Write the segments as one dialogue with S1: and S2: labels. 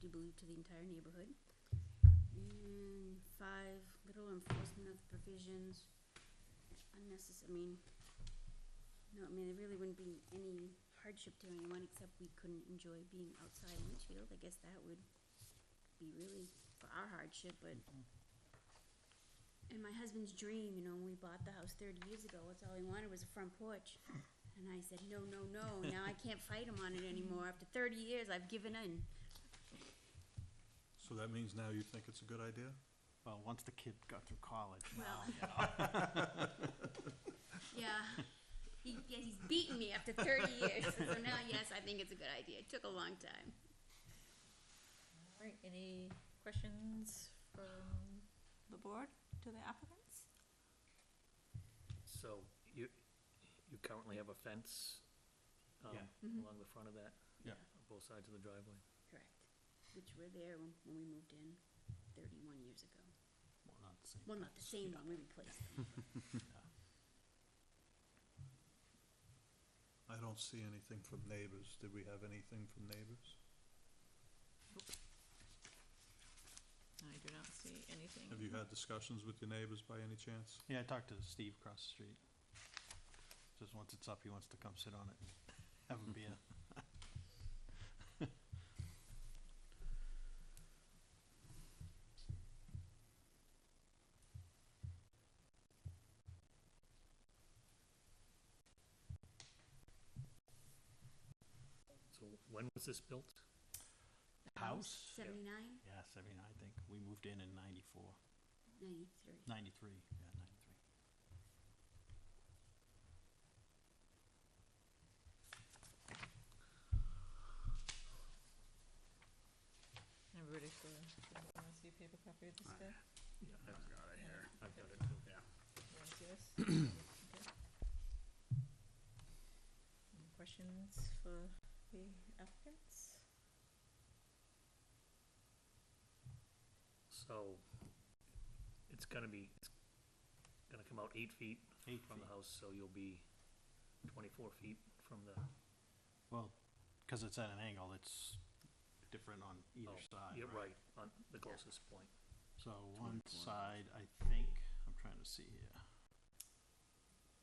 S1: believe, to the entire neighborhood. And five, little enforcement of the provisions, unnecessary, I mean, no, I mean, there really wouldn't be any hardship to anyone, except we couldn't enjoy being outside in Litchfield, I guess that would be really for our hardship, but and my husband's dream, you know, when we bought the house thirty years ago, was all he wanted was a front porch. And I said, no, no, no, now I can't fight him on it anymore. After thirty years, I've given in.
S2: So that means now you think it's a good idea?
S3: Well, once the kid got through college,
S1: Well. Yeah, he, yeah, he's beaten me after thirty years, so now, yes, I think it's a good idea. It took a long time.
S4: All right, any questions from the board to the applicants?
S5: So you, you currently have a fence, um,
S3: Yeah.
S1: Mhm.
S5: along the front of that?
S2: Yeah.
S5: On both sides of the driveway?
S1: Correct. Which were there when, when we moved in thirty-one years ago.
S3: well, not the same.
S1: Well, not the same one, we replaced them.
S2: I don't see anything from neighbors. Did we have anything from neighbors?
S4: I do not see anything.
S2: Have you had discussions with your neighbors by any chance?
S3: Yeah, I talked to Steve across the street. Just once it's up, he wants to come sit on it, have a beer.
S5: So when was this built?
S3: House?
S1: Seventy-nine,
S3: Yeah, seventy-nine, I think. We moved in in ninety-four,
S1: ninety-three.
S3: ninety-three, yeah, ninety-three.
S4: Everybody still, still wanna see a paper copy of this guy?
S5: Yeah, I've got it
S4: here.
S5: I've got it too.
S4: You wanna see this? Okay. Any questions for the applicants?
S5: So it's gonna be, it's gonna come out eight feet
S3: Eight
S5: from the
S3: feet.
S5: house, so you'll be twenty-four feet from the,
S3: Well, cause it's at an angle, it's different on either
S5: Oh,
S3: side,
S5: yeah,
S3: right?
S5: right, on the closest point.
S3: So one
S1: 24.
S3: side, I think, I'm trying to see here,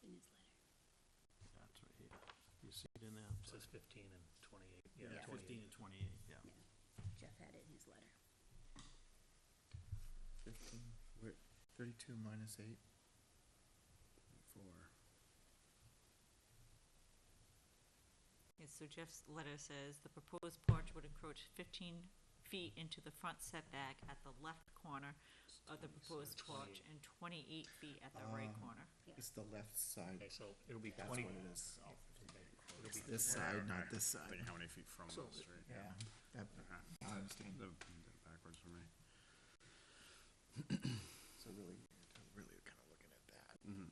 S1: in his letter.
S3: that's right here. You see it in there?
S5: It says fifteen and twenty-eight, yeah,
S3: Yeah, fifteen
S5: twenty-eight.
S3: and twenty-eight, yeah.
S1: Jeff had it in his letter.
S6: Fifteen, wait, thirty-two minus eight. Four.
S4: Yes, so Jeff's letter says the proposed porch would encroach fifteen feet into the front setback at the left corner of the proposed porch
S5: 28.
S4: and twenty-eight feet at the right
S2: Um,
S6: Ah.
S4: corner.
S6: It's the left side.
S5: Okay, so it'll be
S6: That's what
S5: twenty.
S6: it is.
S5: it'll
S6: It's
S5: be
S6: this side, not this side.
S7: how many feet from
S5: So-
S7: the street?
S6: Yeah. That,
S5: Uh-huh.
S6: I understand.
S7: The- the Backwards for me.
S6: So really, I'm really kind of looking at that.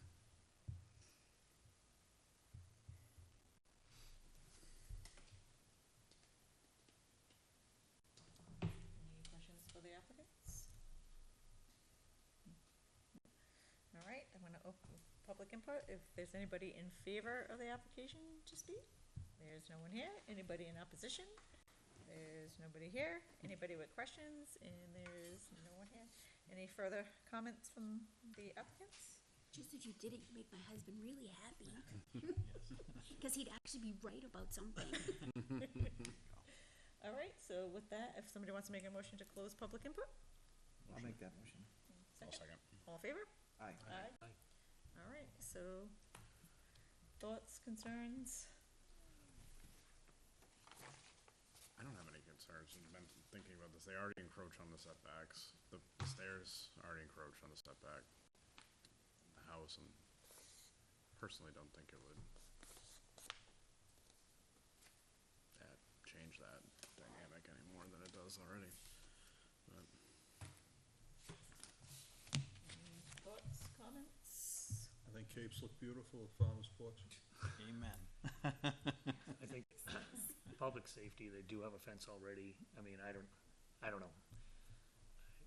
S4: Any questions for the applicants? All right, I'm gonna open public input. If there's anybody in favor of the application to speak? There's no one here. Anybody in opposition? There's nobody here. Anybody with questions? And there's no one here. Any further comments from the applicants?
S1: Just that you did it, you make my husband really happy. Because he'd actually be right about something.
S4: All right, so with that, if somebody wants to make a motion to close public input,
S6: I'll make that motion.
S4: second, all in favor?
S6: Aye.
S4: Aye.
S5: Aye.
S4: All right, so thoughts, concerns?
S7: I don't have any concerns, I've been thinking about this, they already encroach on the setbacks, the the stairs already encroach on the setback. The house, and personally don't think it would. That, change that dynamic any more than it does already. But
S4: Thoughts, comments?
S2: I think capes look beautiful at farmer's porch.
S3: Amen.
S5: I think public safety, they do have a fence already. I mean, I don't, I don't know.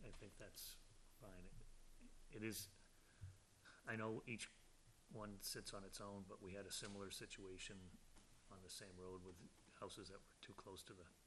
S5: I think that's fine. It- It is, I know each one sits on its own, but we had a similar situation on the um, same road with houses that were too close to the